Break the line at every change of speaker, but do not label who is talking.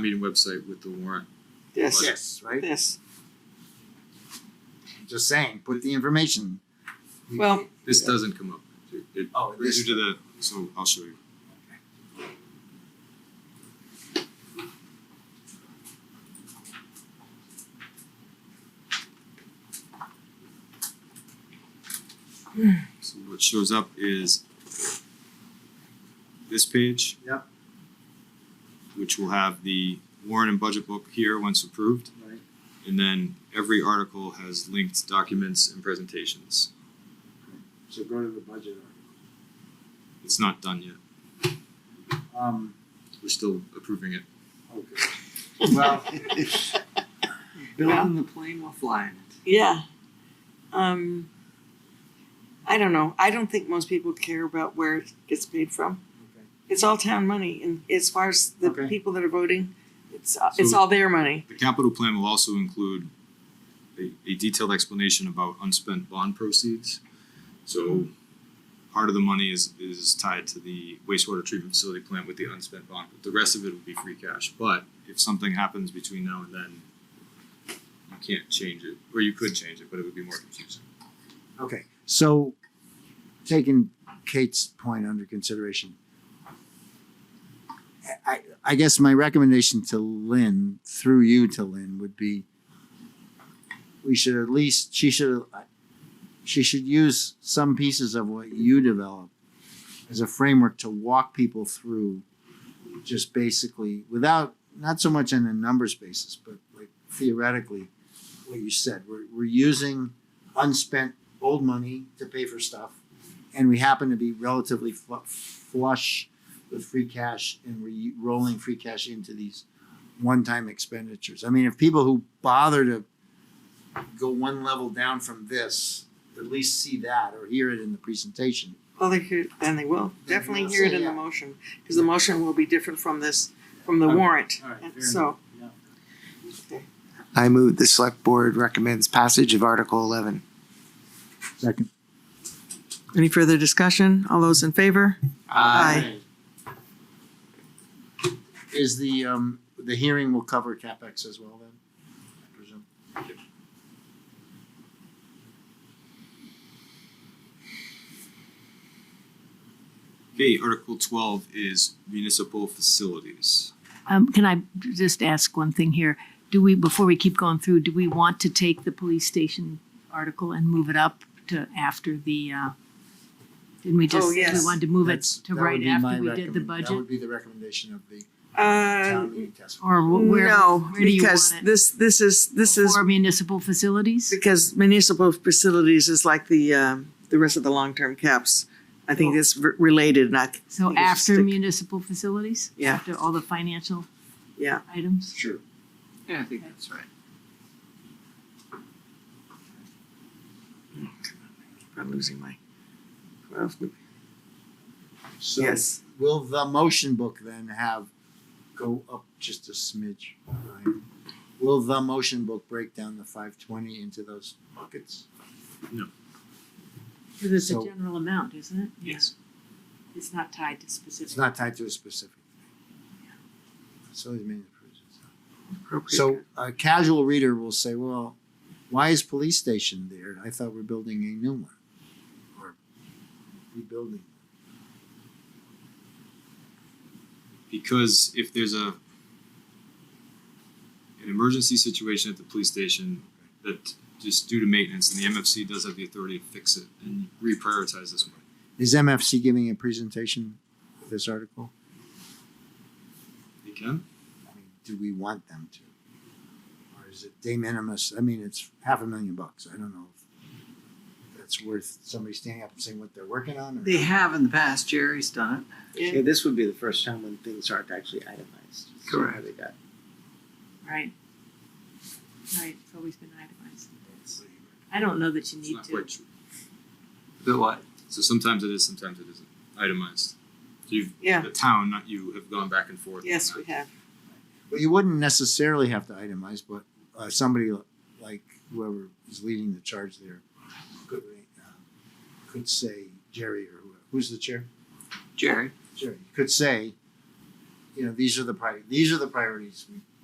meeting website with the warrant.
This,
Yes, right?
this.
Just saying, put the information.
Well,
This doesn't come up. It
Oh,
brings
this-
you to the, so I'll show you.
Hmm.
So what shows up is this page.
Yep.
Which will have the warrant and budget book here once approved.
Right.
And then every article has linked documents and presentations.
So go to the budget.
It's not done yet.
Um,
We're still approving it.
okay. Well,
Building
the plane while flying it.
yeah. Um, I don't know. I don't think most people care about where it gets paid from.
Okay.
It's all town money, and as far as the
Okay.
people that are voting, it's it's
So-
all their money.
The capital plan will also include a, a detailed explanation about unspent bond proceeds. So part of the money is, is tied to the wastewater treatment facility plant with the unspent bond. The rest of it will be free cash, but if something happens between now and then, you can't change it, or you could change it, but it would be more confusing.
Okay, so taking Kate's point under consideration. I, I guess my recommendation to Lynn, through you to Lynn, would be we should at least, she should, she should use some pieces of what you develop as a framework to walk people through just basically without, not so much on a numbers basis, but like theoretically, what you said, we're, we're using unspent old money to pay for stuff, and we happen to be relatively fl- flush with free cash, and we're rolling free cash into these one-time expenditures. I mean, if people who bother to go one level down from this at least see that or hear it in the presentation.
Well, they could, then they will
Then
definitely
we'll
hear it
say,
in the
yeah.
motion because the motion will be different from this from the
Okay.
warrant.
All right,
And
fair
so,
I move the select board recommends passage of Article eleven.
Second.
any further discussion? All those in favor? Aye.
Is the um the hearing will cover capex as well then? I presume.
Okay, Article twelve is municipal facilities.
Um, can I just ask one thing here? Do we, before we keep going through, do we want to take the police station article and move it up to after the, uh, didn't we just,
Oh,
we
yes.
wanted to move it
That's- that
to
would
right
be my
after we did the
recommend- That
budget?
would be the recommendation of the
Uh,
town meeting task. force.
Or wh- where,
no,
where do you
because
want it?
this this is this is
For municipal facilities?
Because municipal facilities is like the, um, the rest of the long-term caps. I think it's re- related, not,
So
think it's
after
stick-
municipal facilities?
Yeah.
After all the financial
Yeah.
items?
Sure.
Yeah, I think that's right.
I'm losing my. well,
So
Yes,
will the motion book then have go up just a smidge? Ryan? Will the motion book break down the five twenty into those buckets?
Because it's a
So-
general amount, isn't it?
Yes.
Yeah. It's not tied to specific.
It's not tied to a specific thing. Facilities maintenance. provisions.
appropriate.
So a casual reader will say, well, why is police station there? I thought we're building a new one or rebuilding.
because if there's a an emergency situation at the police station that just due to maintenance and the MFC does have the authority to fix it and reprioritize this money.
Is MFC giving a presentation for this article?
They can?
I mean, do we want them to? Or is it de minimis? I mean, it's half a million bucks. I don't know if that's worth somebody standing up and saying what they're working on or.
They have in the past, Jerry's done
Yeah.
this would be the first time when things aren't actually itemized.
Correct.
They got
Right. Right, it's always been itemized. I don't know that you
It's
need
not
to.
quite true.
it. The what?
So sometimes it is, sometimes it isn't itemized. So you've
Yeah.
the town, not you, have gone back and forth. on
Yes,
that.
we have.
Well, you wouldn't necessarily have to itemize, but uh, somebody like whoever is leading the charge there could uh, could say Jerry or whoever. Who's the chair?
Jerry?
Jerry could say, you know, these are the prior, these are the priorities we